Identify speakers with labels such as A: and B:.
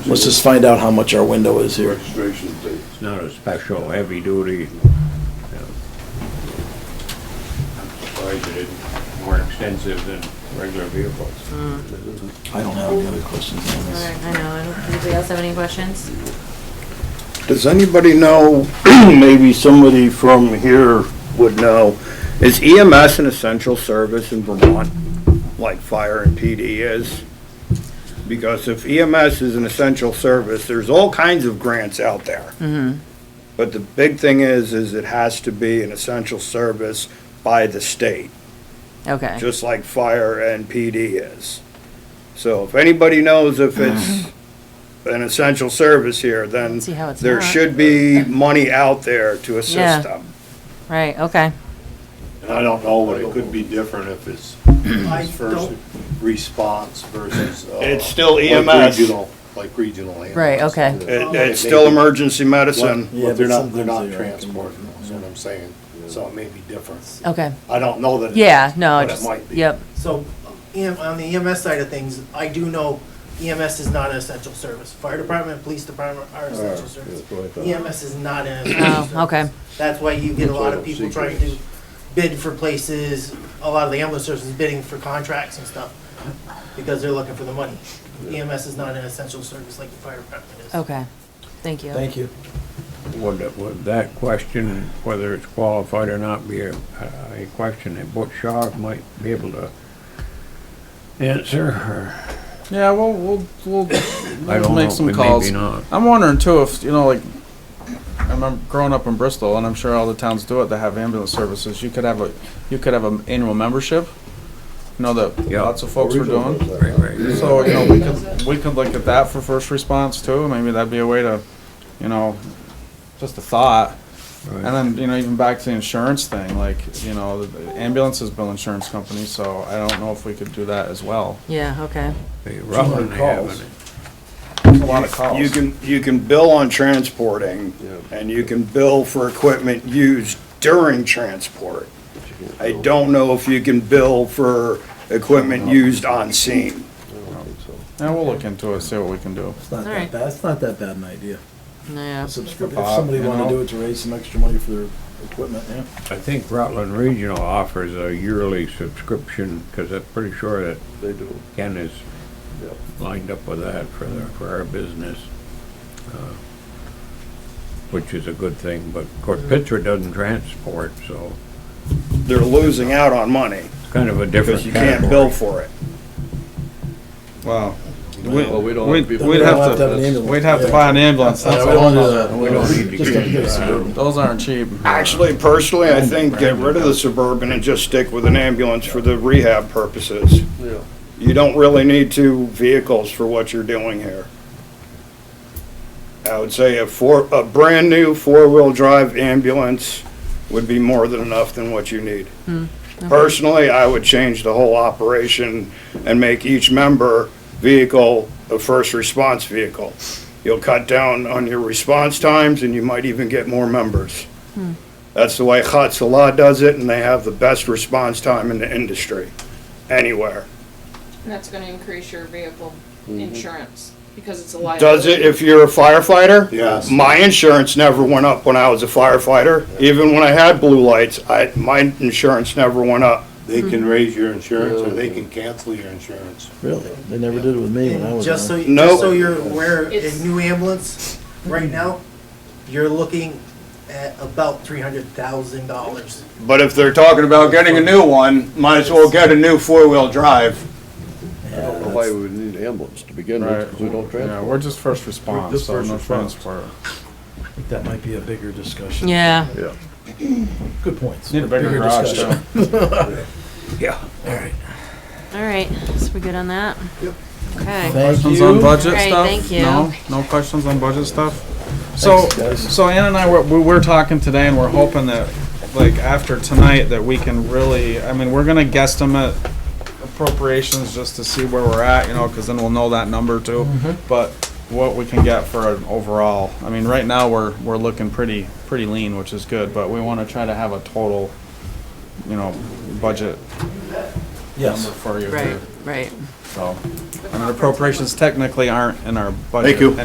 A: Let's just find out how much our window is here.
B: registration date.
C: It's not a special heavy duty. I'm surprised it isn't more extensive than regular vehicles.
A: I don't have any other questions on
D: All
A: this.
D: right, I know, I don't, anybody else have any questions?
E: Does anybody know, maybe somebody from here would know, is EMS an essential service in Vermont, like fire and PD is? Because if EMS is an essential service, there's all kinds of grants out there. But the big thing is, is it has to be an essential service by the state
F: Okay.
E: just like fire and PD is. So if anybody knows if
F: Hmm.
E: it's an essential service here, then
F: See how it's
E: there
F: not.
E: should be money out there to
F: Yeah.
E: assist them.
F: Right, okay.
B: And I don't know, but it could be different if it's first response versus. uh,
E: It's still
B: like
E: EMS.
B: regional- Like regional E ambulance.
F: Right, okay.
E: It, it's still emergency medicine.
A: Yeah,
B: But they're
A: but
B: not, they're
A: sometimes
B: not
A: they are.
B: transporting, that's what I'm saying. So it may be different.
F: Okay.
B: I don't know that. it
F: Yeah,
B: is,
F: no,
B: but it
F: just,
B: might be.
F: yep.
G: So, EM on the EMS side of things, I do know EMS is not an essential service. Fire department, police department are essential services. EMS is not an essential
F: Oh,
G: service.
F: okay.
G: That's why you get a lot
B: Sort
G: of
B: of
G: people
B: secret.
G: trying to bid for places, a lot of the ambulance services bidding for contracts and stuff, because they're looking for the money. EMS is not an essential service like the fire department is.
F: Okay. Thank you.
A: Thank you.
C: Would, it- would that question, whether it's qualified or not, be a, a question that Butch Shaw might be able to answer or,
H: Yeah, we'll we'll we'll
C: I
H: we'll
C: don't
H: make
C: know,
H: some
C: maybe
H: calls.
C: not.
H: I'm wondering too if you know, like, I remember growing up in Bristol, and I'm sure all the towns do it. They have ambulance services. You could have a you could have an annual membership. You know that
C: Yeah.
H: lots of folks were doing.
C: Right, right.
H: So you know we could we could look at that for first response too. Maybe that'd be a way to, you know, just a thought.
C: right.
H: And then, you know, even back to the insurance thing, like, you know, the ambulances bill insurance companies, so I don't know if we could do that as well.
F: Yeah, okay.
C: They- Rutland
A: calls.
C: having it.
H: A lot of calls.
E: You can, you can bill on transporting and you can bill for equipment used during transport. I don't know if you can bill for equipment used on scene.
H: Yeah, we'll look into it, see what we can do.
A: It's not
F: All right.
A: that bad, it's not that bad an idea.
F: Yeah.
A: Subscription, if
H: Bob,
A: somebody
H: you
A: wanted to
H: know?
A: do it to raise some extra money for their equipment, yeah.
C: I think Rutland Regional offers a yearly subscription, because I'm pretty sure that
B: They do.
C: Ken is lined up with that for the, for our business. uh, Which is a good thing, but of course Pittsburgh doesn't transport, so
E: They're losing out on money
C: it's kind of a different
E: because you can't bill
C: category.
E: for it.
H: Wow.
B: Well, we don't
H: We'd,
B: have to be-
H: we'd
A: We'd
H: have
A: an
H: to,
A: ambulance.
H: we'd have to
A: Yeah.
H: buy an ambulance, that's
A: Yeah,
H: a
A: we don't
H: whole
A: do
H: nother-
A: that. We don't need to
C: do
A: Just gotta get a
C: that.
A: Suburban.
H: Those aren't cheap.
E: Actually, personally, I think get rid of the Suburban and just stick with an ambulance for the rehab purposes.
B: Yeah.
E: You don't really need two vehicles for what you're doing here. I would say a four, a brand-new four-wheel-drive ambulance would be more than enough than what you need. Personally, I would change the whole operation and make each member vehicle a first response vehicle. You'll cut down on your response times and you might even get more members. That's the way Hatzalah does it and they have the best response time in the industry, anywhere.
I: And that's gonna increase your vehicle insurance, because it's a liability.
E: Does it if you're a firefighter?
B: Yes.
E: My insurance never went up when I was a firefighter. Even when I had blue lights, I, my insurance never went up.
B: They
F: Mm-hmm.
B: can raise your insurance or they can cancel your insurance.
A: Really? They never did it with me when I
G: And
A: was
G: just so,
A: on.
G: you-
E: No.
G: just so you're aware, a
I: It's-
G: new ambulance, right now, you're looking at about three hundred thousand dollars.
E: But if they're talking about getting a new one, might as well get a new four-wheel drive.
B: Why we would need ambulance to begin
H: Right, yeah, we're just first response,
A: just
H: so
A: first
H: no
A: response.
H: transport.
A: I think that might be a bigger discussion.
F: Yeah.
A: Good points.
H: Need a bigger
A: Bigger
H: garage,
A: discussion.
H: too.
F: All right. So we good on that? Yep. Okay.
A: Thank
H: Questions
A: you.
H: on budget
F: Great,
H: stuff?
F: thank you.
H: No, no questions on budget stuff? So,
A: guys.
H: so Ann and I, were- we were talking today and we're hoping that, like, after tonight, that we can really, I mean, we're gonna guesstimate appropriations just to see where we're at, you know, cause then we'll know that number too.
A: Mm-hmm.
H: But what we can get for an overall, I mean, right now, we're, we're looking pretty, pretty lean, which is good, but we wanna try to have a total, you know, budget number
A: Yes.
H: for you
F: Right,
H: too,
F: right.
H: so.
I: But
H: I mean, appropriations technically aren't in our budget.
E: Thank you.